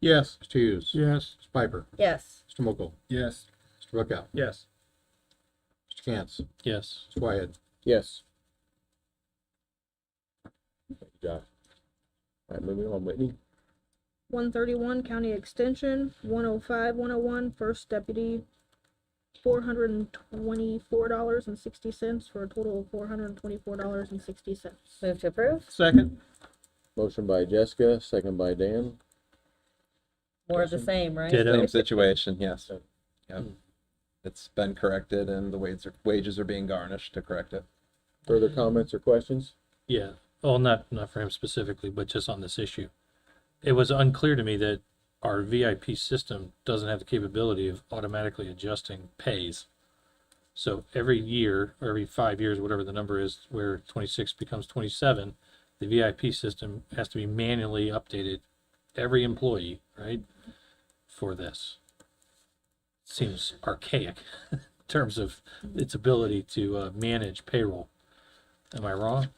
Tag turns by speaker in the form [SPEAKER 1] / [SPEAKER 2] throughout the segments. [SPEAKER 1] Yes.
[SPEAKER 2] Mr. Hughes.
[SPEAKER 1] Yes.
[SPEAKER 2] Mr. Piper.
[SPEAKER 3] Yes.
[SPEAKER 2] Mr. Mokel.
[SPEAKER 1] Yes.
[SPEAKER 2] Mr. Bookout.
[SPEAKER 1] Yes.
[SPEAKER 2] Mr. Cantz.
[SPEAKER 1] Yes.
[SPEAKER 2] Mr. Wyatt.
[SPEAKER 4] Yes. Thank you, Josh. All right, moving on, Whitney.
[SPEAKER 3] One thirty-one County Extension, 105, 101, First Deputy, four hundred and twenty-four dollars and sixty cents for a total of four hundred and twenty-four dollars and sixty cents.
[SPEAKER 5] Move to approve.
[SPEAKER 1] Second.
[SPEAKER 4] Motion by Jessica, second by Dan.
[SPEAKER 5] More of the same, right?
[SPEAKER 1] Ditto.
[SPEAKER 6] Same situation, yes.
[SPEAKER 4] Yeah.
[SPEAKER 6] Yep.
[SPEAKER 4] hmm.
[SPEAKER 6] It's been corrected and the wages are, wages are being garnished to correct it.
[SPEAKER 4] Further comments or questions?
[SPEAKER 7] Yeah, well, not, not for him specifically, but just on this issue. It was unclear to me that our VIP system doesn't have the capability of automatically adjusting pays. So every year, or every five years, whatever the number is, where twenty-six becomes twenty-seven, the VIP system has to be manually updated, every employee, right? For this. Seems archaic in terms of its ability to, uh, manage payroll. Am I wrong?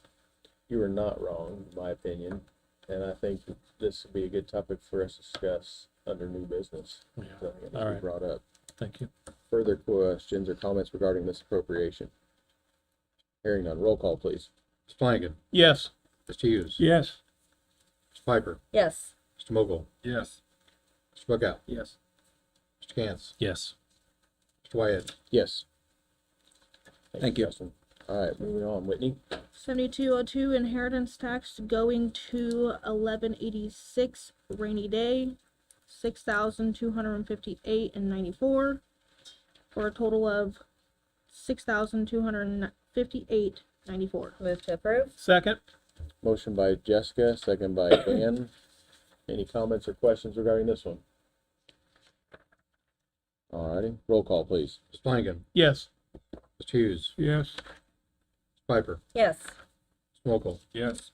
[SPEAKER 4] You are not wrong, in my opinion, and I think that this would be a good topic for us to discuss under new business.
[SPEAKER 7] Yeah.
[SPEAKER 4] something that needs to be
[SPEAKER 7] All right.
[SPEAKER 4] Brought up.
[SPEAKER 7] Thank you.
[SPEAKER 4] Further questions or comments regarding this appropriation? Hearing none, roll call, please.
[SPEAKER 2] Mr. Flanagan.
[SPEAKER 1] Yes.
[SPEAKER 2] Mr. Hughes.
[SPEAKER 1] Yes.
[SPEAKER 2] Mr. Piper.
[SPEAKER 5] Yes.
[SPEAKER 2] Mr. Mokel.
[SPEAKER 1] Yes.
[SPEAKER 2] Mr. Bookout.
[SPEAKER 1] Yes.
[SPEAKER 2] Mr. Cantz.
[SPEAKER 7] Yes.
[SPEAKER 2] Mr. Wyatt.
[SPEAKER 4] Yes.
[SPEAKER 6] Thank you.
[SPEAKER 4] Justin. All right, moving on, Whitney.
[SPEAKER 3] Seventy-two oh two inheritance tax going to eleven eighty-six rainy day, six thousand two hundred and fifty-eight and ninety-four, for a total of six thousand two hundred and fifty-eight ninety-four.
[SPEAKER 5] Move to approve.
[SPEAKER 1] Second.
[SPEAKER 4] Motion by Jessica, second by Dan. Any comments or questions regarding this one? All righty, roll call, please.
[SPEAKER 2] Mr. Flanagan.
[SPEAKER 1] Yes.
[SPEAKER 2] Mr. Hughes.
[SPEAKER 1] Yes.
[SPEAKER 2] Mr. Piper.
[SPEAKER 5] Yes.
[SPEAKER 2] Mr. Mokel.
[SPEAKER 1] Yes.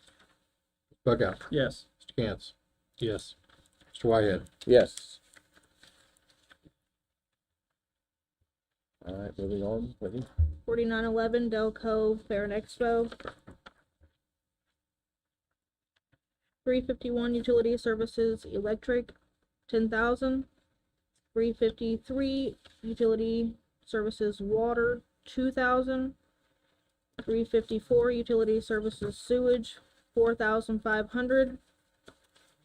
[SPEAKER 2] Mr. Bookout.
[SPEAKER 1] Yes.
[SPEAKER 2] Mr. Cantz.
[SPEAKER 7] Yes.
[SPEAKER 2] Mr. Wyatt.
[SPEAKER 4] Yes. All right, moving on, Whitney.
[SPEAKER 3] Forty-nine eleven Del Cove Fair and Expo. Three fifty-one Utility Services Electric, ten thousand. Three fifty-three Utility Services Water, two thousand. Three fifty-four Utility Services Sewage, four thousand five hundred.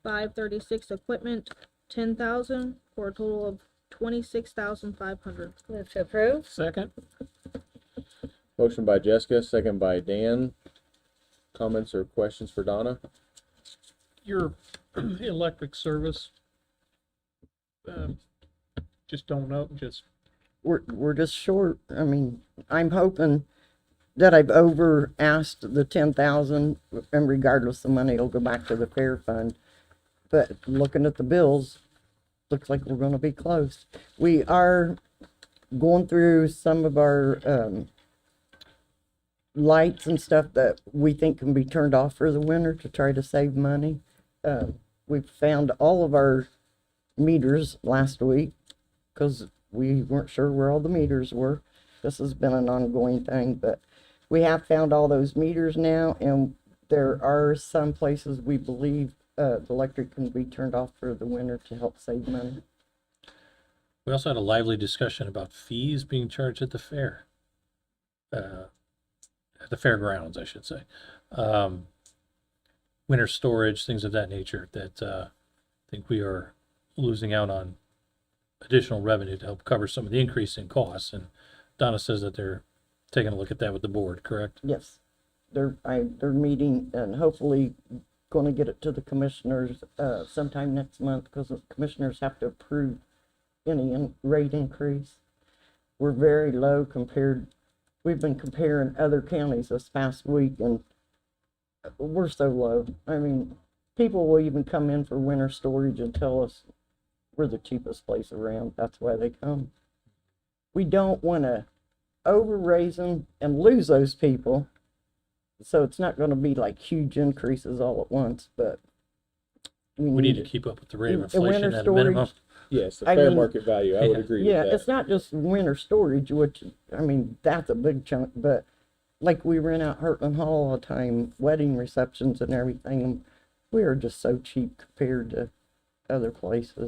[SPEAKER 3] Five thirty-six Equipment, ten thousand, for a total of twenty-six thousand five hundred.
[SPEAKER 5] Move to approve.
[SPEAKER 1] Second.
[SPEAKER 4] Motion by Jessica, second by Dan. Comments or questions for Donna?
[SPEAKER 1] Your electric service. um, Just don't know, just,
[SPEAKER 8] we're, we're just short. I mean, I'm hoping that I've over asked the ten thousand and regardless the money will go back to the fair fund. But looking at the bills, looks like we're gonna be close. We are going through some of our, um, lights and stuff that we think can be turned off for the winter to try to save money. Um, we found all of our meters last week because we weren't sure where all the meters were. This has been an ongoing thing, but we have found all those meters now, and there are some places we believe uh, the electric can be turned off for the winter to help save money.
[SPEAKER 7] We also had a lively discussion about fees being charged at the fair. Uh, at the fairgrounds, I should say. Um, winter storage, things of that nature that, uh, I think we are losing out on additional revenue to help cover some of the increase in costs. And Donna says that they're taking a look at that with the board, correct?
[SPEAKER 8] Yes, they're I, they're meeting and hopefully going to get it to the commissioners uh, sometime next month because the commissioners have to approve any in- rate increase. We're very low compared. We've been comparing other counties this past week, and uh, we're so low. I mean, people will even come in for winter storage and tell us we're the cheapest place around. That's why they come. We don't want to overraise them and lose those people. So it's not going to be like huge increases all at once, but
[SPEAKER 7] We need to keep up with the rate of
[SPEAKER 8] And- and Mm. winter
[SPEAKER 7] inflation at a minimum.
[SPEAKER 8] storage-
[SPEAKER 4] Yes, the
[SPEAKER 8] I
[SPEAKER 4] fair
[SPEAKER 8] mean-
[SPEAKER 4] market value, I would
[SPEAKER 7] Yeah.
[SPEAKER 4] agree with
[SPEAKER 8] Yeah,
[SPEAKER 4] that.
[SPEAKER 8] it's not just winter storage, which, I mean, that's a big chunk, but like we rent out Heartland Hall all the time, wedding receptions and everything. We are just so cheap compared to other places.